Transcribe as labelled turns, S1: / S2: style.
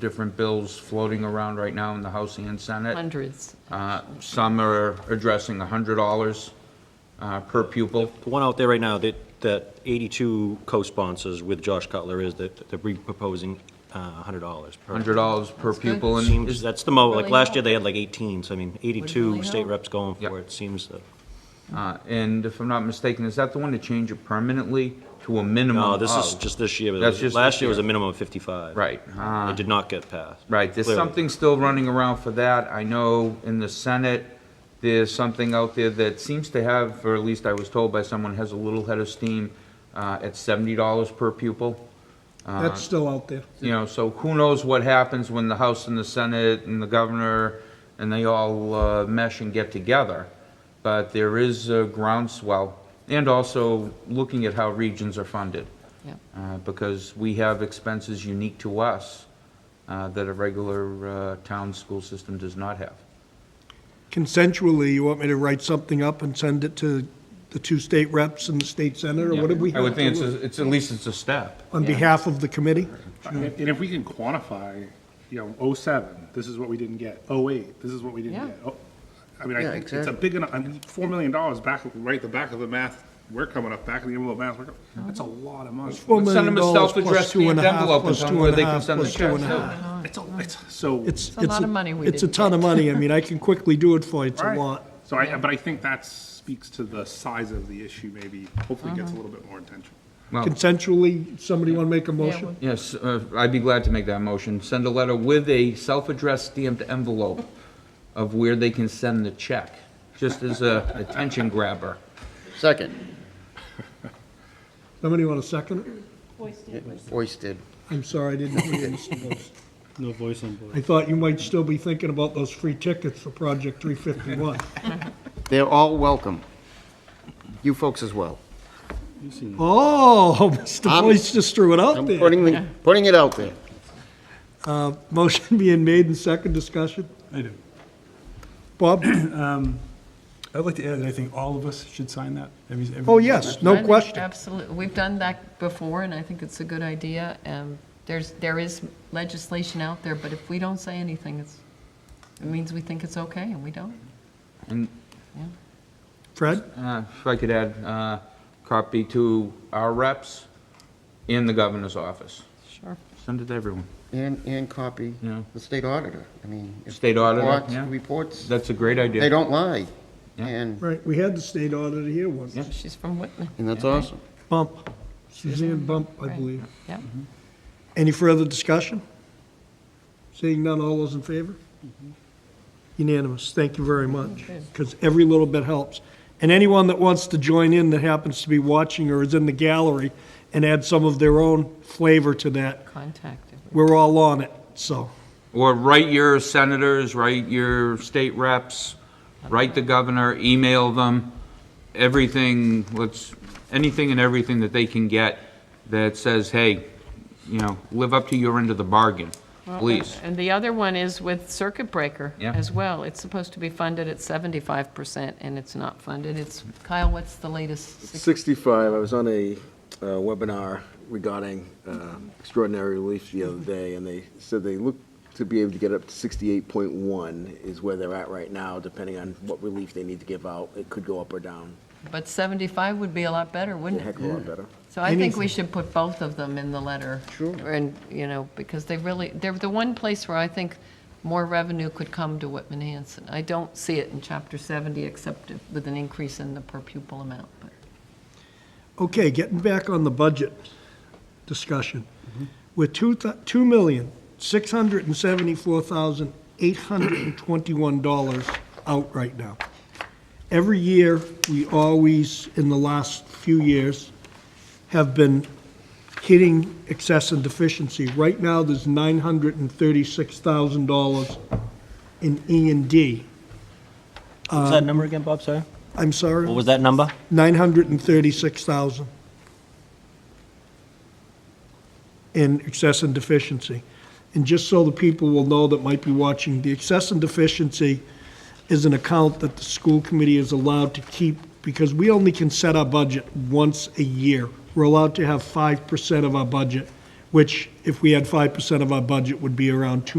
S1: different bills floating around right now in the House and Senate.
S2: Hundreds.
S1: Uh, Some are addressing $100 uh, per pupil.
S3: The one out there right now that, that 82 co-sponsors with Josh Cutler is that they're proposing uh, $100 per.
S1: $100 per
S2: good.
S1: pupil. and
S3: Seems,
S1: is-
S3: that's the mo, like
S2: Really
S3: last
S2: help.
S3: year they had like 18, so I mean,
S2: really
S3: 82 state
S2: help.
S3: reps going
S1: Yep.
S3: for it, seems that.
S1: uh, And if I'm not mistaken, is that the one to change it permanently to a minimum
S3: No, this is
S1: of?
S3: just this year. but it
S1: Oh. That's
S3: was-
S1: just
S3: Last
S1: this
S3: year was a
S1: year.
S3: minimum of 55.
S1: Right. uh,
S3: It did not get passed.
S1: Right, there's
S3: Clearly.
S1: something still running around for that. I know in the Senate, there's something out there that seems to have, or at least I was told by someone, has a little head of steam uh, at $70 per pupil.
S4: That's
S1: Uh-huh.
S4: still out there.
S1: You know, so who knows what happens when the House and the Senate and the governor and they all uh, mesh and get together. But there is a groundswell, and also looking at how regions are funded
S2: Yeah.
S1: uh, because we have expenses unique to us uh, that a regular uh, town school system does not have.
S4: Consensually, you want me to write something up and send it to the two state reps and the state senator, or what do we
S1: I
S4: have
S1: would
S4: to
S1: think it's,
S4: do?
S1: a- it's, at least it's a step.
S4: On behalf of the committee?
S5: And and if we can quantify, you know, '07, this is what we didn't get, '08, this is what we didn't
S2: Yeah.
S5: get. Oh, I mean, I think it's a big enough, I mean, $4 million back, right at the back of the math, we're coming up, back of the envelope math, we're coming- that's a lot of money.
S4: Four
S1: Let's send them
S4: million
S1: a
S4: dollars plus
S1: self-addressed
S4: two and a
S1: stamped
S4: half,
S1: envelope and
S4: plus
S1: tell
S4: two
S1: them where
S4: and a
S1: they can
S4: half,
S1: send
S4: plus
S1: the
S4: two and a
S1: checks,
S4: half.
S5: It's, a- it's, so.
S4: It's,
S2: a lot of money we
S4: It's a
S2: didn't
S4: ton of money. I mean, I can quickly do it for you. It's a
S5: Right.
S4: lot.
S5: So I, but I think that speaks to the size of the issue, maybe, hopefully gets a little bit more attention.
S1: Well,
S4: Consensually, somebody want to make a motion?
S1: yes, uh, I'd be glad to make that motion. Send a letter with a self-addressed stamped envelope of where they can send the check, just as a attention grabber.
S6: Second,
S4: Somebody want to second it?
S6: hoisted.
S4: I'm sorry, I didn't hear you, Mr. Most.
S7: No voice on board.
S4: I thought you might still be thinking about those free tickets for Project 351.
S6: They're all welcome. You folks as well.
S4: Oh, Mr.
S6: I'm-
S4: Boyce just threw it out
S6: I'm
S4: there.
S6: putting, the- putting it out there.
S4: Motion being made and second discussion.
S7: I do.
S4: Bob?
S7: I'd like to add that I think all of us should sign that. Every- every-
S4: Oh, yes, no question.
S2: Absolutely. We've done that before, and I think it's a good idea. And there's, there is legislation out there, but if we don't say anything, it's, it means we think it's okay, and we don't.
S1: And
S4: Fred?
S1: Uh, If I could add, uh, copy to our reps in the governor's office.
S2: Sure.
S1: Send it to everyone.
S6: And, and copy
S1: Yeah.
S6: the state auditor. I mean. if
S1: State auditor,
S6: reports-
S1: yeah.
S6: Reports,
S1: That's a great idea.
S6: they don't lie.
S1: Yeah.
S6: And,
S4: Right, we had the state auditor here once.
S2: She's from Whitman.
S6: and that's awesome.
S4: Bump, Suzanne Bump, I
S2: Right.
S4: believe.
S2: Yeah.
S4: Any further discussion? Seeing none, all those in favor? Unanimous, Mm-hmm. thank you very much, because every little bit helps. And anyone that wants to join in that happens to be watching or is in the gallery and add some of their own flavor to that,
S2: Contacted.
S4: we're all on it, so.
S1: Or write your senators, write your state reps, write the governor, email them, everything, let's, anything and everything that they can get that says, hey, you know, live up to your end of the bargain, please.
S2: And the other one is with Circuit Breaker
S1: Yeah.
S2: as well. It's supposed to be funded at seventy-five percent, and it's not funded. It's, Kyle, what's the latest? Six-
S8: 65, I was on a uh, webinar regarding uh, extraordinary relief the other day, and they said they look to be able to get up to 68.1 is where they're at right now, depending on what relief they need to give out. It could go up or down,
S2: But seventy-five would be a lot better,
S8: a
S2: wouldn't it?
S8: heck of a lot better.
S2: So I think we should put both of them in the letter.
S6: Sure.
S2: And, you know, because they really, they're the one place where I think more revenue could come to Whitman Hanson. I don't see it in chapter 70, except if- with an increase in the per pupil amount, but
S4: Okay, getting back on the budget discussion. We're two, two million, six hundred and seventy-four thousand, eight hundred and twenty-one dollars out right now. Every year, we always, in the last few years, have been hitting excess and deficiency. Right now, there's nine hundred and thirty-six thousand dollars in E and D.
S3: What's that number again, Bob, sorry?
S4: I'm sorry?
S3: What was that number?
S4: 936,000 in excess and deficiency. And just so the people will know that might be watching, the excess and deficiency is an account that the school committee is allowed to keep because we only can set our budget once a year. We're allowed to have 5% of our budget which if we had 5% of our budget would be around 2